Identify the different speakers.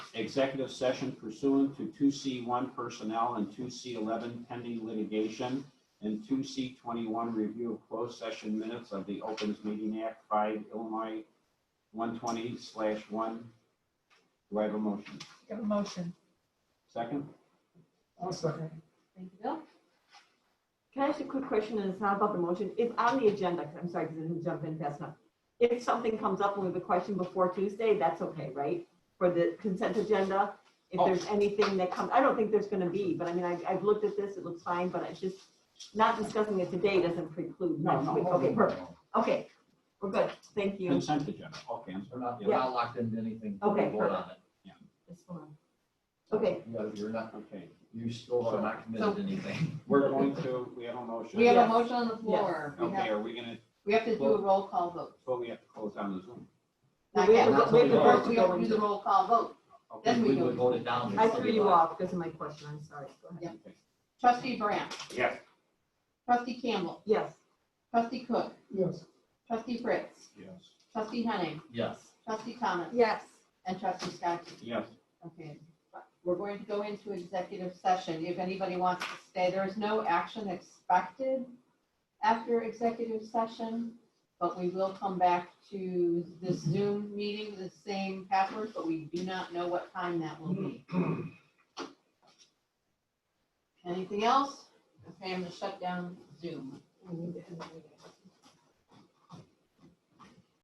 Speaker 1: executive session pursuant to two C one personnel and two C eleven pending litigation and two C twenty-one review of closed session minutes of the Opens Meeting Act five Illinois one twenty slash one. Do I have a motion?
Speaker 2: Give a motion.
Speaker 1: Second?
Speaker 2: I'll second.
Speaker 3: Thank you, Bill.
Speaker 4: Can I ask a quick question, and it's not about the motion, if on the agenda, 'cause I'm sorry, because I didn't jump in fast enough. If something comes up and we have a question before Tuesday, that's okay, right? For the consent agenda, if
Speaker 1: Oh.
Speaker 4: there's anything that comes, I don't think there's gonna be, but I mean, I've, I've looked at this, it looks fine, but it's just, not discussing it today doesn't preclude
Speaker 1: No,
Speaker 4: next
Speaker 1: no,
Speaker 4: week, okay, perfect, okay, we're good, thank you.
Speaker 1: Consent agenda, okay. I'm
Speaker 5: We're
Speaker 1: sorry.
Speaker 5: not, we're
Speaker 1: Yeah,
Speaker 5: not locked into anything.
Speaker 4: Okay,
Speaker 5: We'll vote on it.
Speaker 4: This one. Okay,
Speaker 5: You gotta- You're not,
Speaker 1: Okay,
Speaker 5: you still are not committed to anything.
Speaker 1: we're going to, we have a motion.
Speaker 3: We have a
Speaker 4: Yes.
Speaker 3: motion on the floor. We
Speaker 1: Okay,
Speaker 3: have,
Speaker 1: are we gonna,
Speaker 3: we have to do a roll call vote.
Speaker 1: but we have to close down the Zoom.
Speaker 3: Not
Speaker 4: we
Speaker 3: yet.
Speaker 4: have
Speaker 5: to go- we have to
Speaker 3: First,
Speaker 4: vote to
Speaker 3: We
Speaker 4: go
Speaker 3: have to do
Speaker 4: into-
Speaker 3: the roll call vote.
Speaker 1: Okay.
Speaker 3: Then we
Speaker 5: We
Speaker 3: go.
Speaker 5: would vote it down.
Speaker 4: I threw you off because of my question, I'm sorry, go ahead.
Speaker 3: Yeah. Trustee Brandt,
Speaker 1: Yes.
Speaker 3: trustee Campbell,
Speaker 4: Yes,
Speaker 3: trustee Cook,
Speaker 2: Yes.
Speaker 3: trustee Fritz,
Speaker 1: Yes.
Speaker 3: trustee Henning,
Speaker 5: Yes.
Speaker 3: trustee Thomas,
Speaker 4: yes.
Speaker 3: and trustee Scotty.
Speaker 1: Yes.
Speaker 3: Okay, we're going to go into executive session. If anybody wants to stay, there is no action expected after executive session, but we will come back to this Zoom meeting, the same password, but we do not know what time that will be. Anything else? Okay, I'm gonna shut down Zoom.
Speaker 4: We need to end the meeting.